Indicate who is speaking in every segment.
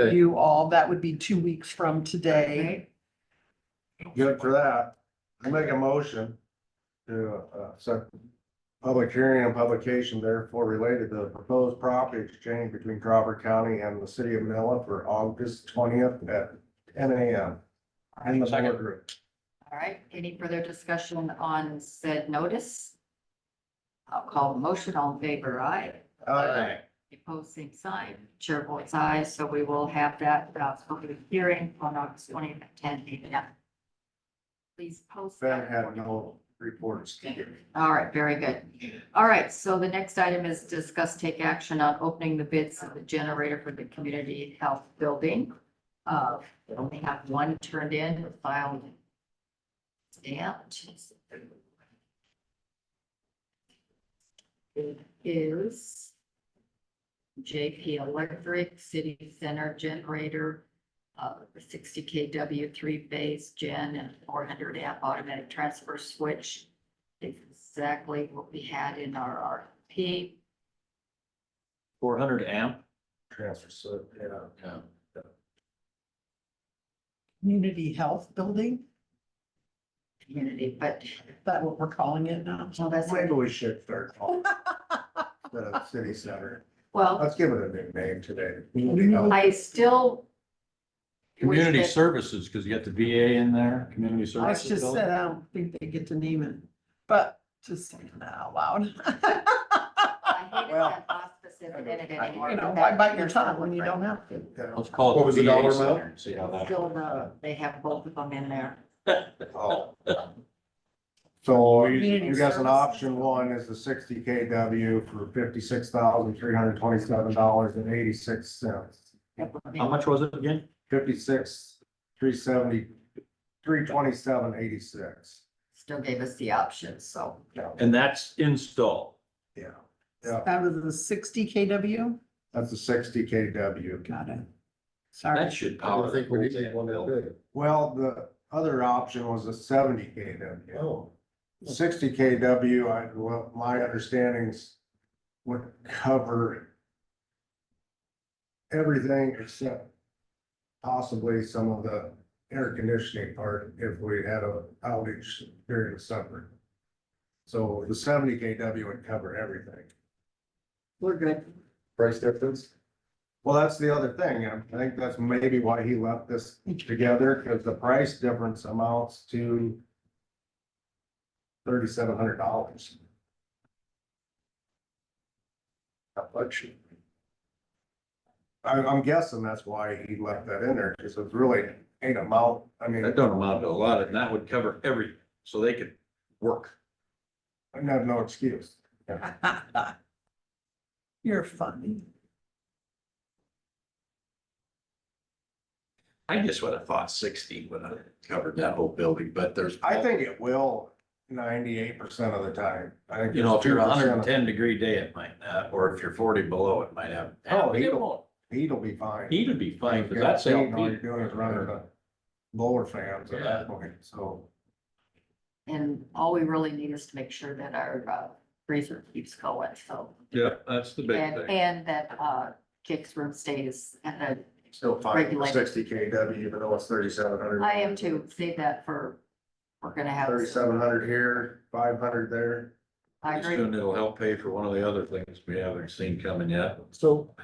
Speaker 1: Okay.
Speaker 2: you all. That would be two weeks from today.
Speaker 3: Good for that. I make a motion to, uh, set public hearing and publication therefore related to the proposed property exchange between Crawford County and the city of Manila for August twentieth at ten AM. In the boardroom.
Speaker 4: All right, any further discussion on said notice? I'll call the motion, all in favor, aye.
Speaker 3: Uh, Aye.
Speaker 4: Opposed, same sign. Chair votes aye, so we will have that uh, public hearing on August twentieth at ten a.m. Please post.
Speaker 3: Ben
Speaker 4: that.
Speaker 3: had no reports.
Speaker 4: All right, very good. All right, so the next item is discuss take action on opening the bids of the generator for the community health building. Uh, we only have one turned in, filed. Stamped. It is JP Electric City Center Generator, uh, sixty KW three phase gen and four hundred amp automatic transfer switch exactly what we had in our RFP.
Speaker 1: Four hundred amp.
Speaker 3: Transfer, so, yeah.
Speaker 1: Yeah.
Speaker 2: Community Health Building,
Speaker 4: community, but
Speaker 2: is that what we're calling it now?
Speaker 4: well, that's,
Speaker 3: Maybe we should start calling the city center.
Speaker 4: well,
Speaker 3: Let's give it a new name today.
Speaker 4: I still. wish
Speaker 1: Community
Speaker 4: that-
Speaker 1: services, because you got the VA in there, community services.
Speaker 2: I was just
Speaker 1: building.
Speaker 2: said, I don't think they get to name it, but just saying that out loud.
Speaker 4: I hated
Speaker 3: Well,
Speaker 4: that hospice in it anymore,
Speaker 2: You know,
Speaker 4: but
Speaker 2: why
Speaker 4: that-
Speaker 2: bite your tongue when you don't have to?
Speaker 1: Let's call it.
Speaker 3: What was the
Speaker 1: VA
Speaker 3: dollar
Speaker 1: center
Speaker 3: amount?
Speaker 1: and See how that.
Speaker 4: Still, the- they have both of them in there.
Speaker 3: Oh. So you
Speaker 2: Community
Speaker 3: you guys, an
Speaker 2: service.
Speaker 3: option one is the sixty KW for fifty-six thousand, three hundred twenty-seven dollars and eighty-six cents.
Speaker 1: How much was it again?
Speaker 3: Fifty-six, three seventy, three twenty-seven, eighty-six.
Speaker 4: Still gave us the option, so.
Speaker 3: Yeah,
Speaker 1: And that's install.
Speaker 3: yeah, yeah,
Speaker 2: Out of the sixty KW?
Speaker 3: that's the sixty KW.
Speaker 2: Got it.
Speaker 1: That
Speaker 2: Sorry.
Speaker 1: should power. the whole building.
Speaker 3: Well, the other option was the seventy KW. Oh. Sixty KW, I, well, my understandings would cover everything except possibly some of the air conditioning part if we had a outage during the summer. So the seventy KW would cover everything.
Speaker 4: We're good.
Speaker 3: Price difference? Well, that's the other thing, and I think that's maybe why he left this together, because the price difference amounts to thirty-seven hundred dollars. I, I'm guessing that's why he left that in there, because it's really ain't amount, I mean,
Speaker 1: That don't amount to a lot, and that would cover everything, so they could work.
Speaker 3: I have no excuse.
Speaker 2: You're funny.
Speaker 1: I just would have thought sixty would have covered that whole building, but there's.
Speaker 3: I think it will ninety-eight percent of the time. I think
Speaker 1: You know, if you're a
Speaker 3: 2%
Speaker 1: hundred and ten degree day, it might not, or if you're forty below, it might have.
Speaker 3: Oh,
Speaker 1: It
Speaker 3: he'll-
Speaker 1: won't.
Speaker 3: Heat'll be fine.
Speaker 1: He'd be fine, because
Speaker 3: Yeah,
Speaker 1: that's.
Speaker 3: All
Speaker 1: LP.
Speaker 3: you're doing is running the blower fans at
Speaker 1: Yeah.
Speaker 3: that point, so.
Speaker 4: And all we really need is to make sure that our uh, freezer keeps going, so.
Speaker 1: Yeah, that's the big
Speaker 4: And,
Speaker 1: thing.
Speaker 4: and that, uh, Jake's room stays at a
Speaker 3: Still fine,
Speaker 4: Regulated.
Speaker 3: sixty KW, even though it's thirty-seven hundred.
Speaker 4: I am too, save that for, we're gonna have.
Speaker 3: Thirty-seven hundred here, five hundred there.
Speaker 4: I
Speaker 1: Pretty
Speaker 4: agree,
Speaker 1: soon it'll help pay for one of the other things we haven't seen coming yet.
Speaker 5: So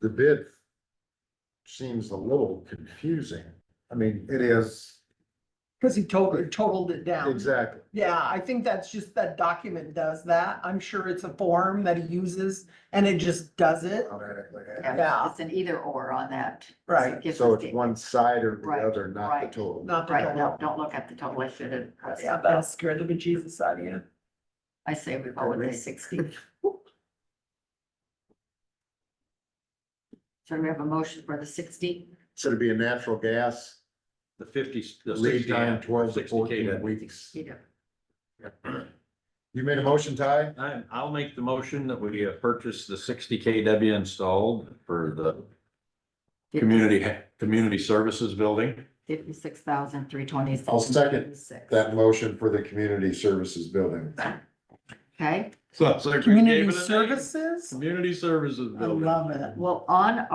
Speaker 5: the bid seems a little confusing. I mean,
Speaker 3: It is,
Speaker 2: Cause he totaled, totaled it down.
Speaker 5: exactly.
Speaker 2: Yeah, I think that's just, that document does that. I'm sure it's a form that he uses and it just does it.
Speaker 3: automatically added.
Speaker 4: yeah,
Speaker 2: Yeah.
Speaker 4: it's an either or on that.
Speaker 2: Right.
Speaker 4: Gives
Speaker 5: So
Speaker 4: us
Speaker 5: it's
Speaker 4: the-
Speaker 5: one side or the
Speaker 4: Right,
Speaker 5: other, not the
Speaker 4: right.
Speaker 5: total.
Speaker 2: Not the
Speaker 4: Right, no,
Speaker 2: total.
Speaker 4: don't look at the total, I should have.
Speaker 2: Yeah, that'll scare the bejesus out of you.
Speaker 4: I say we go with the sixty. So we have a motion for the sixty,
Speaker 5: Should it be a natural gas
Speaker 1: The fifty, the
Speaker 5: lead
Speaker 1: sixty.
Speaker 5: time twelve to
Speaker 1: 60 K
Speaker 5: fourteen
Speaker 1: then.
Speaker 5: weeks?
Speaker 4: you know,
Speaker 5: You made a motion, Ty?
Speaker 1: I, I'll make the motion that we uh, purchase the sixty KW installed for the community, community services building.
Speaker 4: fifty-six thousand, three twenty-six.
Speaker 5: I'll second That motion for the community services building.
Speaker 4: Okay,
Speaker 1: So, so we gave
Speaker 2: Community
Speaker 1: it a name.
Speaker 2: services?
Speaker 1: Community services
Speaker 2: I
Speaker 1: building.
Speaker 2: love it.
Speaker 4: well, on